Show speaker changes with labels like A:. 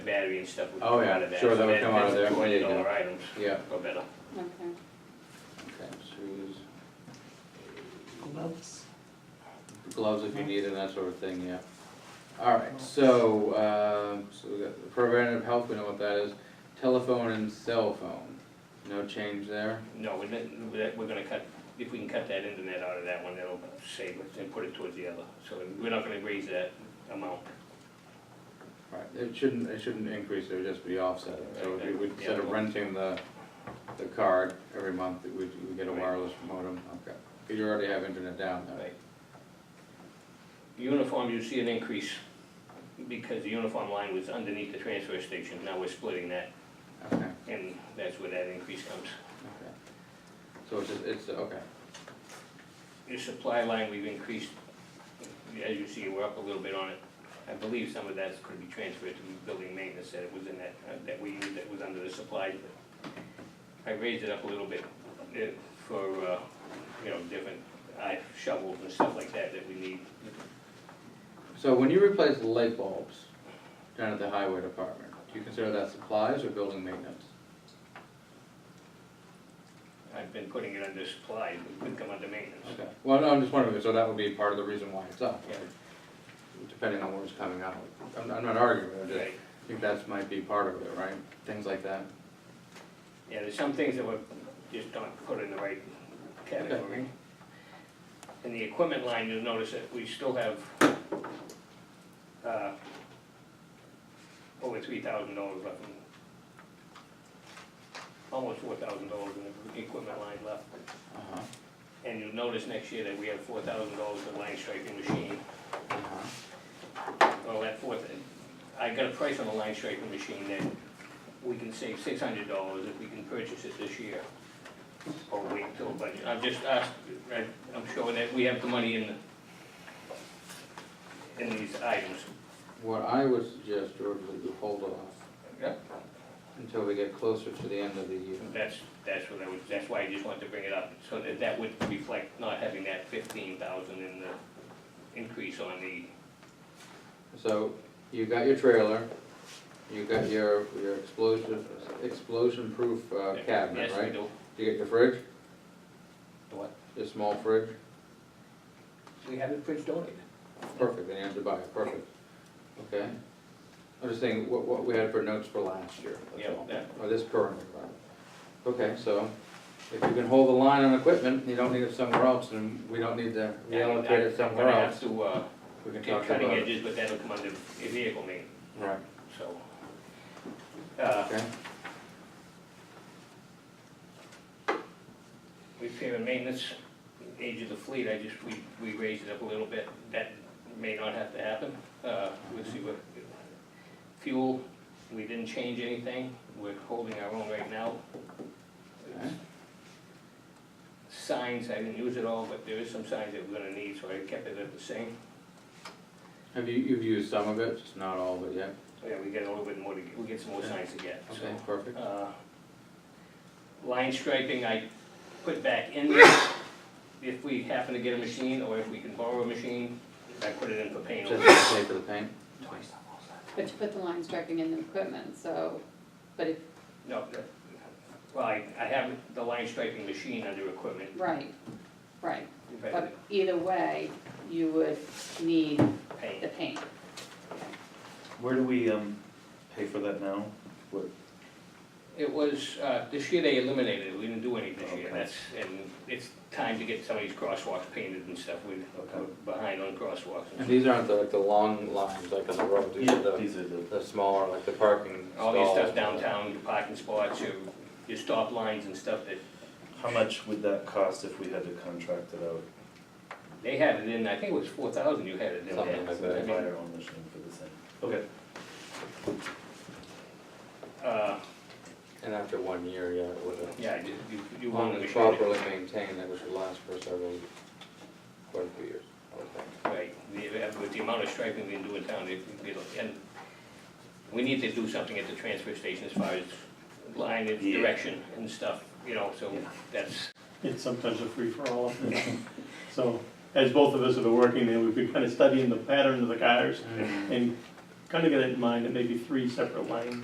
A: battery and stuff would
B: Oh,
A: come
B: yeah,
A: out of that.
B: sure,
A: So
B: that would come out of there,
A: That's
B: there
A: twenty
B: you go.
A: dollar items,
B: Yeah,
A: go better.
C: Okay.
B: okay, shoes,
D: gloves.
B: gloves if you need and that sort of thing, yeah. All right, so, um, so we got the preventative health, we know what that is, telephone and cell phone, no change there?
A: No, we're not, we're- we're gonna cut, if we can cut that internet out of that one, that'll save it and put it towards the other. So we're not gonna raise that amount.
B: Right, it shouldn't, it shouldn't increase, it would just be offset, so if we would, instead of renting the, the card every month, we, we get a wireless modem, okay. 'Cause you already have internet down there.
A: Right. Uniform, you see an increase because the uniform line was underneath the transfer station. Now we're splitting that
B: Okay,
A: and that's where that increase comes.
B: okay. So it's, just- it's, okay,
A: Your supply line, we've increased, as you see, we're up a little bit on it. I believe some of that's could be transferred to building maintenance that was in that, uh, that we, used that was under the supply. I raised it up a little bit eh, for, uh, you know, different uh, shovels and stuff like that that we need.
B: so when you replace the light bulbs down at the highway department, do you consider that supplies or building maintenance?
A: I've been putting it under supply, it could come under maintenance.
B: Okay, well, no, I'm just wondering, so that would be part of the reason why it's up,
A: Yeah.
B: depending on what's coming out. I'm, I'm not arguing, I just
A: Right.
B: think that's might be part of it, right? Things like that.
A: Yeah, there's some things that were just not put in the right category. In the equipment line, you'll notice that we still have, uh, over three thousand dollars left. in- Almost four thousand dollars in the equipment line left.
B: Uh-huh,
A: And you'll notice next year that we have four thousand dollars in line striping machine.
B: uh-huh.
A: Well, Oh, that fourth, I got a price on the line striping machine that we can save six hundred dollars if we can purchase it this year. Or wait till budget, I've just asked, I- I'm sure that we have the money in the, in these items.
B: What I would suggest, George, is you hold off
A: Yep.
B: until we get closer to the end of the year.
A: That's, that's what I was, that's why I just wanted to bring it up, so that that would reflect not having that fifteen thousand in the increase on the,
B: So you got your trailer, you got your, your explosion, explosion-proof uh, cabinet,
A: yes, we
B: right?
A: do.
B: You got your fridge,
A: What?
B: your small fridge,
A: We have it fridge donated.
B: perfect, then you have to buy it, perfect. Okay? I'm just saying, what, what we had for notes for last year, that's
A: Yeah,
B: all.
A: yeah.
B: Or this current year, right? Okay, so if you can hold the line on equipment, you don't need it somewhere else, and we don't need to reallocate it somewhere
A: I'm gonna have
B: else.
A: to, uh,
B: We can
A: Take
B: talk about
A: cutting
B: it.
A: edges, but that'll come under vehicle maintenance,
B: Right,
A: so. uh,
B: okay.
A: Repair and maintenance, age of the fleet, I just, we, we raised it up a little bit, that may not have to happen. Uh, We'll see what, fuel, we didn't change anything, we're holding our own right now.
B: Okay.
A: Signs, I didn't use it all, but there is some signs that we're gonna need, so I kept it at the same.
B: Have you, you've used some of it, just not all of it yet?
A: Yeah, we get a little bit more, to we get some more signs to get, so.
B: Okay, perfect.
A: Uh, Line striping, I put back in there, if we happen to get a machine, or if we can borrow a machine, I put it in for paint.
B: Just to pay for the paint?
C: But you put the line striping in the equipment, so, but if,
A: No, that- well, I, I have the line striping machine under equipment,
C: right, right.
A: but
C: But either way, you would need the
A: paint,
C: paint.
D: Where do we, um, pay for that now? What,
A: it was, uh, this year they eliminated it, we didn't do any this year,
D: Okay.
A: that's, and it's time to get some of these crosswalks painted and stuff, we're we're behind on crosswalks. and
B: And these aren't the, like, the long lines like on the road, these are the,
D: these are the,
B: the smaller, like the parking
A: All your stuff
B: stalls.
A: downtown, your parking spots, your, your stop lines and stuff that
D: how much would that cost if we had to contract it out?
A: They had it in, I think it was four thousand you had it in
B: Something
A: there.
B: like
D: So we
B: that.
D: buy our own machine for the same. Okay.
A: Uh,
B: And after one year, yeah, it would have.
A: yeah, you, you- you want
B: Only
A: to.
B: properly maintained, it should last for several, quite a few years, I would think.
A: Right, The- with the amount of striping we can do in town, it, it'll, and we need to do something at the transfer station as far as line and
D: Yeah.
A: direction and stuff, you know, so
D: Yeah.
A: that's,
E: it's sometimes a free-for-all. So, as both of us have been working there, we've been kind of studying the pattern of the cars and kind of got it in mind, it may be three separate lines.